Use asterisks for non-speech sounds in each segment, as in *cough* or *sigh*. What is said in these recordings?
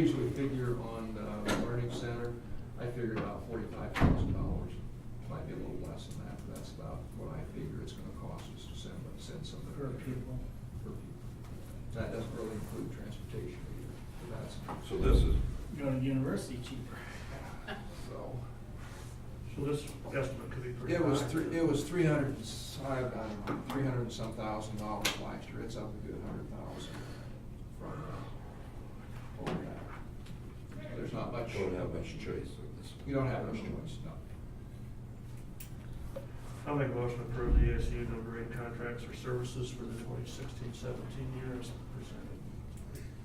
usually figure on the learning center, I figure about forty-five thousand dollars. Might be a little less than that, but that's about what I figure it's gonna cost us to send, send some of the. per pupil. per pupil. That doesn't really include transportation either, but that's, So this is, Go to university cheaper. so. So this estimate could be pretty high. It was three, it was three hundred and, s- I don't know, three hundred and some thousand dollars last year, it's up a good hundred thousand from that. Over that. There's not much. don't have much choice on this. You don't have much choice, no. I'll make a motion to approve the ASU number eight contracts or services for the 2016-17 year as presented.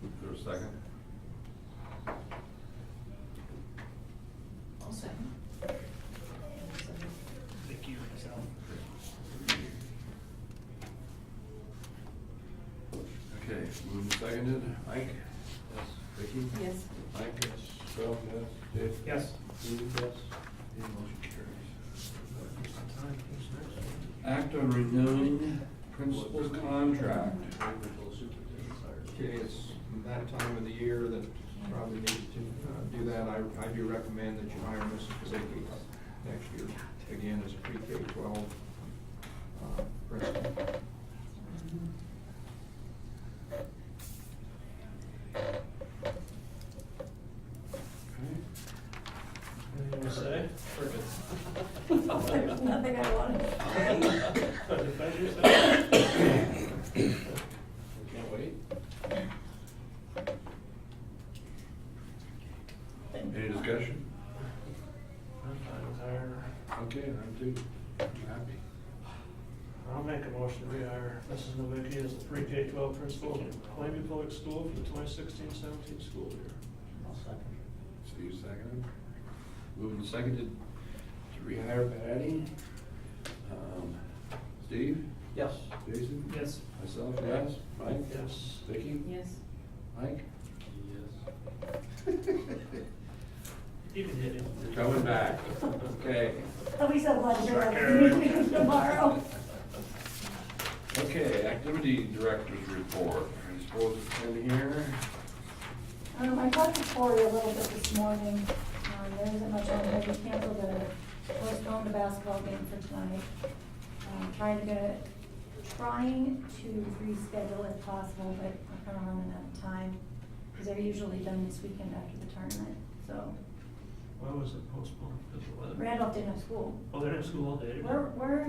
Is there a second? I'll second. Thank you, myself. Okay, moved and seconded. Ike? Yes. Vicky? Yes. *laughs* Mike? Yes. Phil? Yes. Dave? Yes. Steve? Yes. Okay, motion carries. Just the time, please, next. Act on renewing principal's contract. Okay, it's that time of the year that probably needs to uh, do that. I, I do recommend that you hire Mrs. Kazaki next year, again, as a pre-K twelve uh, principal. Anything to say? There's nothing I wanted to say. Defend yourself. Can't wait. Any discussion? I'm fine with hiring. Okay, I'm too. I'm happy. I'll make a motion to rehire Mrs. Novicki as the pre-K twelve principal at Plainview Public School for the 2016-17 school year. I'll second. So you seconded? Moved and seconded to rehire Patty. Um, Steve? Yes. Jason? Yes. Myself, yes. Mike? Yes. Vicky? Yes. Mike? *laughs* You can hit him. You're coming back. Okay. I'll be so glad to bring up Sure. the meeting tomorrow. Okay, activity director's report. Are you supposed to come here? Um, I talked to Cory a little bit this morning, um, there isn't much on there, we canceled the, postponed the basketball game for tonight. Um, trying to get, trying to reschedule if possible, but I'm kinda running out of time, cause they're usually done this weekend after the tournament, so. Why was it postponed? Because of weather? Randolph didn't have school. Oh, they're in school all day. today. We're, we're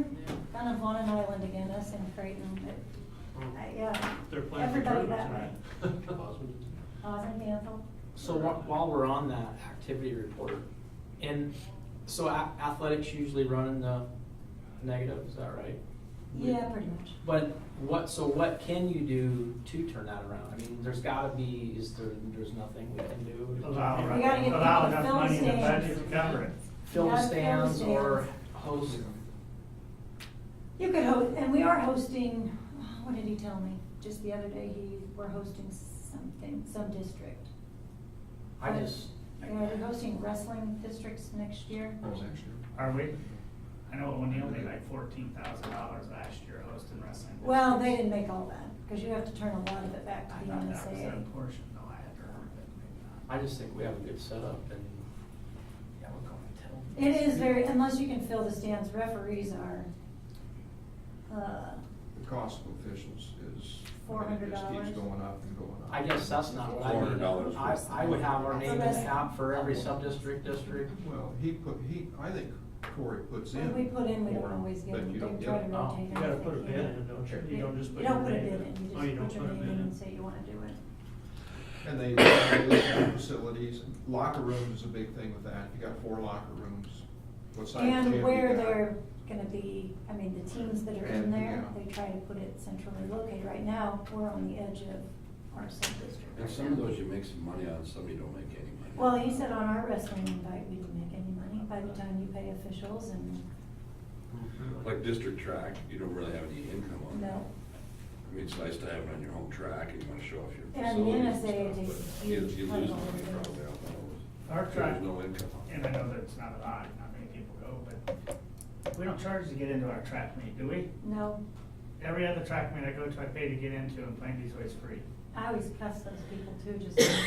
kind of on an island again, us and Creighton, but, Oh. uh, yeah. They're playing for Everybody tournament that way. tonight. *laughs* Austin Danville. So whi- while we're on that activity report, and so a- athletics usually run in the negative, is that right? Yeah, pretty much. But what, so what can you do to turn that around? I mean, there's gotta be, is there, there's nothing we can do? Allow, We gotta get allow people enough film money in the stands. budget to cover it. Film Yeah, film stands or stands. host, You could host, and we are hosting, what did he tell me? Just the other day, he, we're hosting something, some district. I just, You know, they're hosting wrestling districts next year. That was extra. Are we, I know O'Neill made like fourteen thousand dollars last year hosting wrestling. Well, they districts. didn't make all that, because you have to turn a lot of it back I to the thought that was NSA. that portion, though, I had to heard it, maybe not. I just think we have a good setup and. Yeah, we're going to tell. them. It is very, unless you can fill the stands, referees are, uh, The cost of officials is. $400. It just keeps going up and going up. I guess that's not what I mean. $400 I, I would have our name in That's the the app best. for every sub-district, district. Well, he put, he, I think Corey puts in. when we put in, we don't more, always get but them, you don't they get try to it. Oh. rotate. You gotta them if put a they bid can. in, don't you? You You don't just put You your don't name put in. a bid in, Oh, you don't just put a your name bid in and say you wanna do it. And they, they have facilities, and locker rooms is a big thing with that, you got four locker rooms. What size gym And you where got. they're gonna be, I mean, the teams that are in And, there, yeah. they try to put it centrally located. Right now, we're on the edge of our sub-district. And right some of now. those you make some money on, some you don't make any money. Well, he said on our wrestling invite, we didn't make any money by the time you pay officials and, Like district track, you don't really have any income on it. no. I mean, it's nice to have it on your home track and you wanna show off your And the facilities and NSAA stuff, takes but you, huge you cut lose on money it. probably on those. Our track, There's no income on and it. I know that it's not a lot, not many people go, but we don't charge to get into our track meet, do we? No, Every other track meet I go to, I pay to get into, and Plainview's always free. I always cuss those people too, just.